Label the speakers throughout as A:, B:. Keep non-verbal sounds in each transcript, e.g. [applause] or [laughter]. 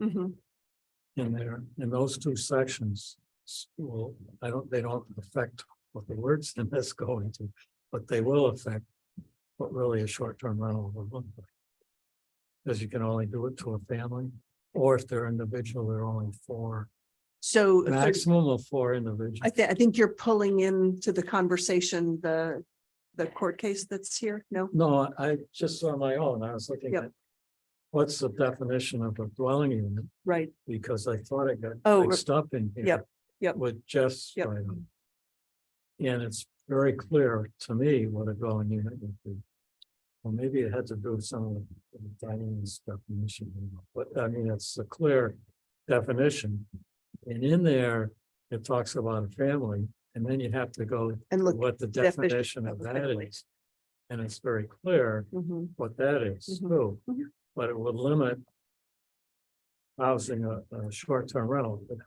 A: Mhm.
B: in there, in those two sections. s- Will, I don't, they don't affect what the words [laughs] in this go into, but they will affect. What really a short-term rental would look like. Because you can only do it to a family, or if they're individual, they're only four,
A: So if there's-
B: maximum of four individuals.
A: I think, I think you're pulling into the conversation, the, the court case that's here. No,
B: No, I I just saw my own, I was looking
A: Yep.
B: at. What's the definition of a dwelling unit,
A: right.
B: because I thought I got
A: Oh,
B: mixed up in here.
A: yep, yep.
B: With Jeff's.
A: Yep.
B: item. And it's very clear to me what a dwelling unit would be. Well, maybe it had to do with some of the dining stuff, but I mean, it's a clear definition. And in there, it talks about a family, and then you have to go to
A: And look.
B: what the
A: definition
B: definition
A: of
B: of
A: a
B: that
A: family.
B: is. And it's very clear
A: Mhm.
B: what that is
A: Mhm.
B: too,
A: Mhm.
B: but it would limit. Housing a, a short-term rental. Of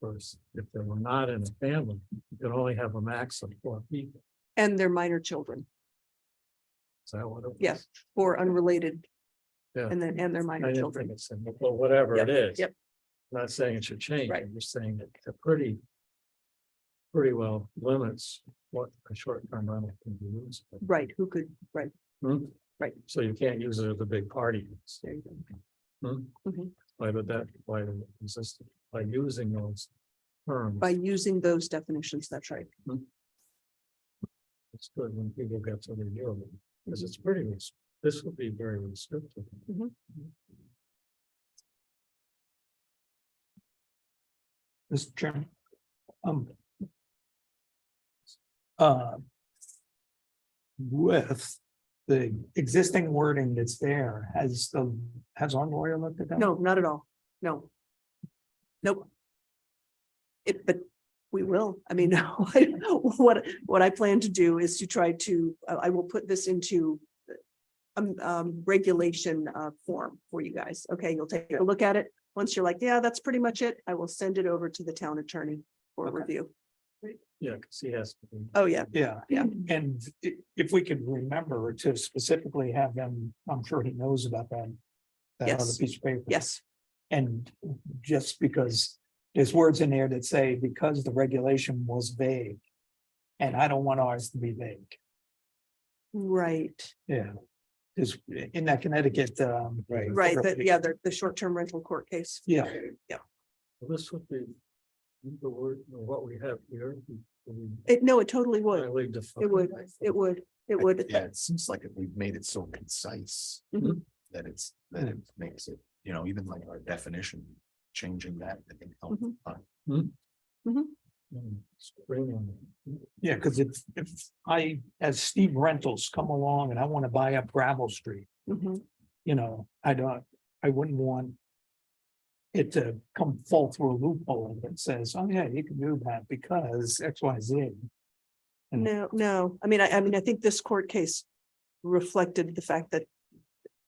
B: course, if they were not in a family, you could only have a max of four people,
A: And their minor children
B: is that what it was?
A: Yes, or unrelated.
B: Yeah.
A: And then, and their
B: I
A: minor
B: didn't think
A: children.
B: it's, in- well, whatever it
A: Yep,
B: is.
A: yep.
B: I'm Not saying it should change,
A: Right.
B: I'm just saying that it pretty. Pretty well limits what a short-term rental can be used. for.
A: Right, who could, right,
B: Hmm?
A: Right.
B: So you can't use it at the big party.
A: there you go.
B: Hmm?
A: Mhm.
B: Why would that, why would it exist by using those terms?
A: By using those definitions, that's right.
B: It's good when people get to review them, because it's pretty, res- this would be very restrictive.
A: Mhm.
C: Mr. Chairman. Um. Uh. With the existing wording that's there, has the, has our lawyer looked at that?
A: No, not at all. No. Nope. It, but we will. I mean, [laughs] what, what I plan to do is to try to, uh, I I will put this into um, um, regulation, uh, form for you guys. Okay, you'll take a look at it. Once you're like, yeah, that's pretty much it, I will send it over to the town attorney for
C: Okay.
A: review.
B: Yeah, because he has. to be-
A: Oh, yeah,
C: Yeah,
A: Yeah.
C: and i- if we could remember to specifically have them, I'm sure he knows about that. That other
A: Yes.
C: piece of paper.
A: yes,
C: And just because there's words in there that say because the regulation was vague. And I don't want ours to be vague.
A: right,
C: Yeah. Is in that Connecticut, um.
A: right, that, yeah, the, the short-term rental court case.
C: Yeah,
B: Well, This would be the word, what we have here.
A: It, no, it totally would,
B: It
A: it would, it would, it would.
D: Yeah, it seems like it- we've made it so concise.
A: Mhm.
D: That it's, that it makes it, you know, even like our definition, changing that, I think. helps
A: Mhm.
D: a lot.
C: yeah, because if, if I, as Steve Rentals come along and I want to buy up gravel street,
A: Mhm.
C: you know, I don't, I wouldn't want. It to come fall through a loophole that says, oh yeah, you can do that because X, Y, Z. And-
A: No, no, I mean, I, I mean, I think this court case reflected the fact that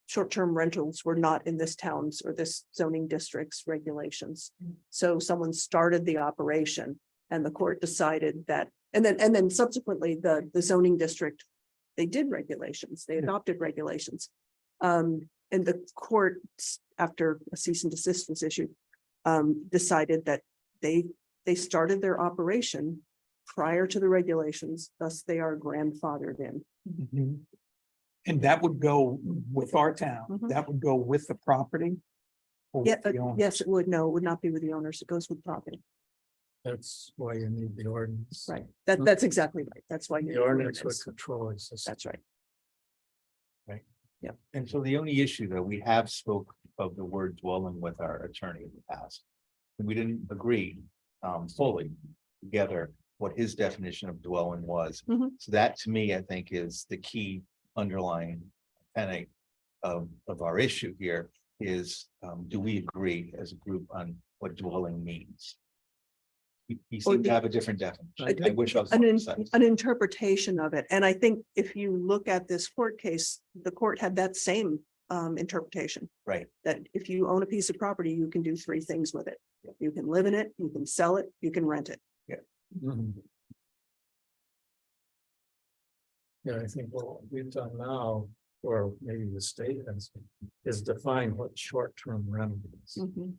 A: short-term rentals were not in this town's or this zoning district's regulations.
C: Mm.
A: So someone started the operation and the court decided that, and then, and then subsequently, the, the zoning district, they did regulations, they
C: Yeah.
A: adopted regulations. Um, and the court, s- after a cease and desist was issued, um, decided that they, they started their operation prior to the regulations, thus they are grandfathered in. Mm-hmm.
C: Mhm. And that would go with our town,
A: Mhm.
C: that would go with the property. or with
A: Yeah, but
C: the owner.
A: yes, it would. No, it would not be with the owners. It goes with property.
B: That's why you need the ordinance.
A: Right. That,
B: Hmm.
A: that's exactly right. That's why. you need
B: The ordinance would
A: ordinance.
B: control existing.
A: That's right.
E: And so the only issue that we have spoke of the word dwelling with our attorney in the past. We didn't agree um fully together what his definition of dwelling was.
A: Mhm.
E: So that to me, I think, is the key underlying tenet of of our issue here is um do we agree as a group on what dwelling means? He he seemed to have a different definition. I wish I was.
A: An,
E: more
A: in-
E: precise.
A: an interpretation of it. And I think if you look at this court case, the court had that same um, interpretation.
E: Right.
A: That if you own a piece of property, you can do three things with it. You can live in it, you can sell it, you can rent it.
B: Mhm. Yeah, I think what we've done now or maybe the state has, is define what short-term rentals.
A: Mhm.